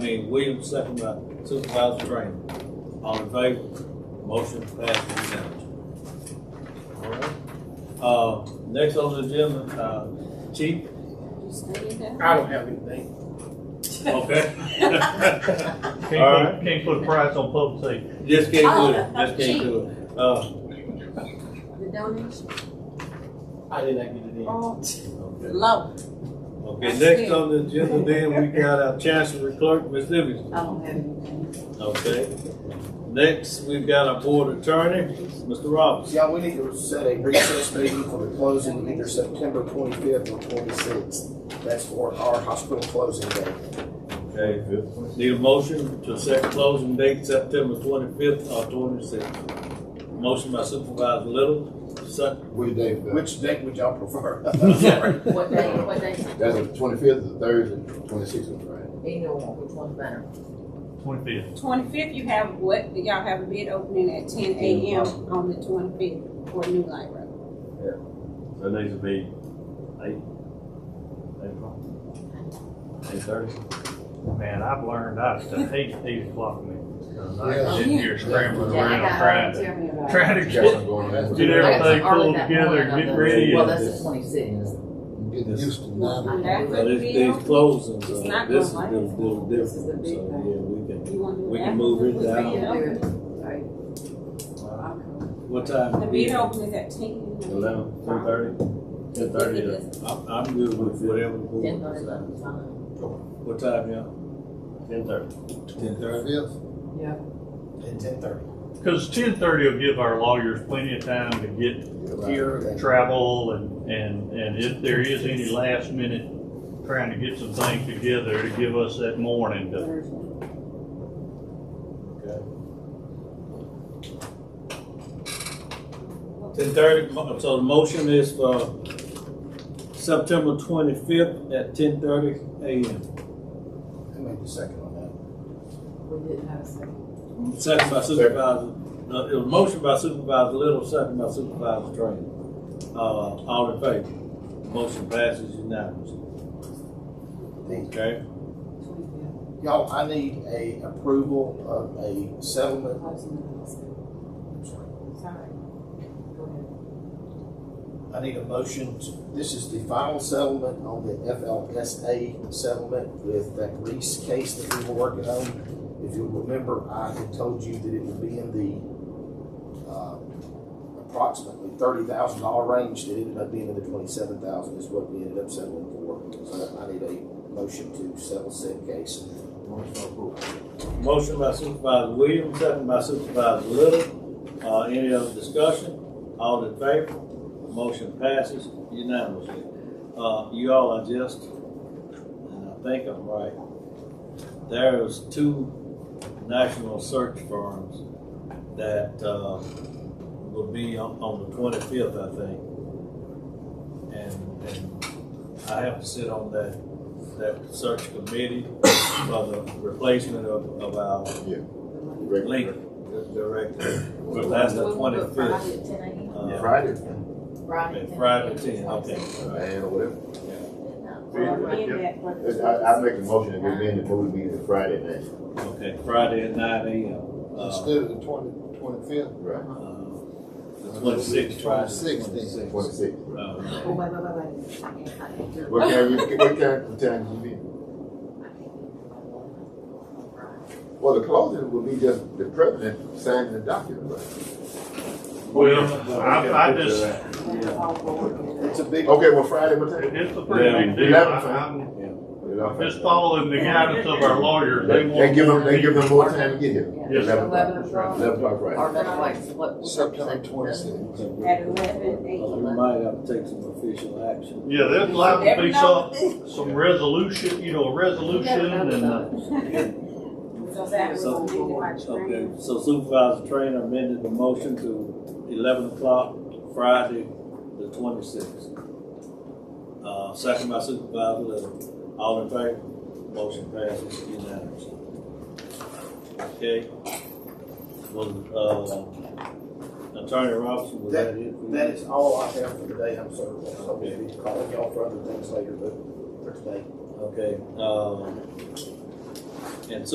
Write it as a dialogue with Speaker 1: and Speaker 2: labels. Speaker 1: King Williams, second by Supervisor Graham. All in favor? Motion passes unanimously. All right. Uh, next on the agenda, uh, Chief,
Speaker 2: I don't have anything.
Speaker 1: okay?
Speaker 3: Can't put, can't put a price on public safety.
Speaker 1: Just can't do it, just can't do it. Uh,
Speaker 4: The donation?
Speaker 2: I did not get it in.
Speaker 4: Oh,
Speaker 1: okay.
Speaker 4: low.
Speaker 1: Okay, next on the agenda then, we got our Chancery Clerk, Ms. Livingston.
Speaker 4: I don't have anything.
Speaker 1: Okay. Next, we've got our board attorney, Mr. Roberts.
Speaker 2: Yeah, we need to set a recess meeting for the closing either September twenty-fifth or twenty-sixth. That's for our hospital closing day.
Speaker 1: Okay. Need a motion to set closing date September twenty-fifth or twenty-sixth. Motion by Supervisor Little, second.
Speaker 5: Which day is that?
Speaker 2: Which date would y'all prefer?
Speaker 4: What day, what day?
Speaker 5: That's the twenty-fifth, the Thursday, twenty-sixth, right?
Speaker 4: They know which one's better.
Speaker 3: Twenty-fifth.
Speaker 6: Twenty-fifth, you have what, y'all have a bid opening at ten AM on the twenty-fifth for New Light Road.
Speaker 7: So it needs to be eight, eight o'clock? Eight thirty?
Speaker 3: Man, I've learned, I still hate eight o'clock meetings. Cause I
Speaker 5: Yeah.
Speaker 3: can sit here scrambling
Speaker 4: Yeah, I
Speaker 3: around
Speaker 4: got,
Speaker 3: trying
Speaker 4: tell
Speaker 3: to,
Speaker 4: me about it.
Speaker 3: trying to
Speaker 5: Got something
Speaker 3: get,
Speaker 5: going on.
Speaker 3: get
Speaker 4: I got
Speaker 3: everything
Speaker 4: some early
Speaker 3: pulled
Speaker 4: that
Speaker 3: together,
Speaker 4: morning,
Speaker 3: get
Speaker 4: I'm
Speaker 3: ready.
Speaker 4: Well,
Speaker 3: and-
Speaker 4: that's the twenty-sixth.
Speaker 5: I'm Getting used to nine.
Speaker 1: Now,
Speaker 6: That would
Speaker 1: this,
Speaker 6: be-
Speaker 1: these closings,
Speaker 6: It's
Speaker 1: uh,
Speaker 6: not
Speaker 1: this is a
Speaker 6: gonna
Speaker 1: little
Speaker 4: This is the
Speaker 1: different,
Speaker 4: big
Speaker 1: so,
Speaker 4: one.
Speaker 1: yeah, we can,
Speaker 6: You wanna do that?
Speaker 1: we can move it down. What
Speaker 6: The
Speaker 1: time?
Speaker 6: bid opening is at ten.
Speaker 7: Eleven, two thirty? Ten thirty, yeah.
Speaker 1: I'm, I'm good with whatever. the board
Speaker 4: Ten thirty,
Speaker 1: decides.
Speaker 4: eleven, fine.
Speaker 1: What time, y'all?
Speaker 7: ten thirty.
Speaker 1: Ten thirty?
Speaker 5: Fifth,
Speaker 4: Yeah.
Speaker 2: At ten thirty.
Speaker 3: Cause ten thirty will give our lawyers plenty of time to get here, travel and, and, and if there is any last minute trying to get some things together to give us that morning to
Speaker 1: Ten thirty, so the motion is for September twenty-fifth at ten thirty AM.
Speaker 2: Who made the second on
Speaker 4: We didn't have a second.
Speaker 1: Second by Supervisor, uh, it was motion by Supervisor Little, second by Supervisor Trainer. Uh, all in favor? Motion passes unanimously. Okay,
Speaker 2: that?
Speaker 4: Twenty-fifth.
Speaker 2: Y'all, I need a approval of a settlement.
Speaker 4: Sorry. Go
Speaker 2: I need a motion. to- This is the final settlement on the FLSA settlement with that Reese case that we were working on. If you remember, I had told you that it would be in the, uh, approximately thirty thousand dollar range. It ended up being in the twenty-seven thousand is what we ended up settling for. So I need a motion to settle said case.
Speaker 1: motion by Supervisor Williams, second by Supervisor Little, uh, any other discussion? All in favor? Motion passes unanimously. Uh, you all are just, and I think I'm right, there is two national search firms that, uh, will be on, on the twenty-fifth, I think. And, and I have to sit on that, that search committee for the replacement of, of our
Speaker 5: regular.
Speaker 1: link director. But that's the twenty-fifth,
Speaker 4: Friday at ten AM.
Speaker 1: uh,
Speaker 5: Friday,
Speaker 4: Friday.
Speaker 1: and Friday ten, okay. all right.
Speaker 5: man, or whatever.
Speaker 6: In
Speaker 4: Oh,
Speaker 5: Yeah.
Speaker 6: that, but-
Speaker 5: It's- I, I make a motion to go in the board meeting Friday night.
Speaker 1: Okay, Friday at nine AM. Uh,
Speaker 8: Instead of the twenty, twenty-fifth,
Speaker 5: Right.
Speaker 1: uh, The twenty-sixth, Friday.
Speaker 8: 26th, then.
Speaker 5: Twenty-sixth.
Speaker 1: Uh,
Speaker 4: Oh, wait, wait, wait, wait. I can't, I can't do it.
Speaker 5: What time, you- what time, what time you be? Well, the closing will be just the president signing the document, right?
Speaker 3: Well, I, I just,
Speaker 2: It's a big.
Speaker 5: Okay, well, Friday, what time?
Speaker 3: it's a pretty big deal.
Speaker 5: Eleven.
Speaker 3: I- I'm- Just following the guidance of our lawyers, they want.
Speaker 5: They give them, they give them more
Speaker 4: more.
Speaker 5: time to get here.
Speaker 3: Yes, sir.
Speaker 4: Eleven o'clock.
Speaker 5: Eleven o'clock, right.
Speaker 4: Or that's like, what?
Speaker 8: September twenty-sixth.
Speaker 6: At eleven AM.
Speaker 1: We might have to take some official action.
Speaker 3: Yeah, there's liable to
Speaker 6: Every
Speaker 3: be
Speaker 6: now
Speaker 3: some,
Speaker 6: and
Speaker 3: some resolution, you know, a resolution and, uh,
Speaker 6: then- So that was on the watch
Speaker 1: Okay,
Speaker 6: room.
Speaker 1: so Supervisor Trainer amended the motion to eleven o'clock Friday, the twenty-sixth. Uh, second by Supervisor Little, all in favor, motion passes unanimously. Okay. Well, uh, Attorney Robinson, was that it?
Speaker 2: That is all I have for today. I'm sorry. I'll be calling y'all for other things later, but for today.
Speaker 1: Okay, uh,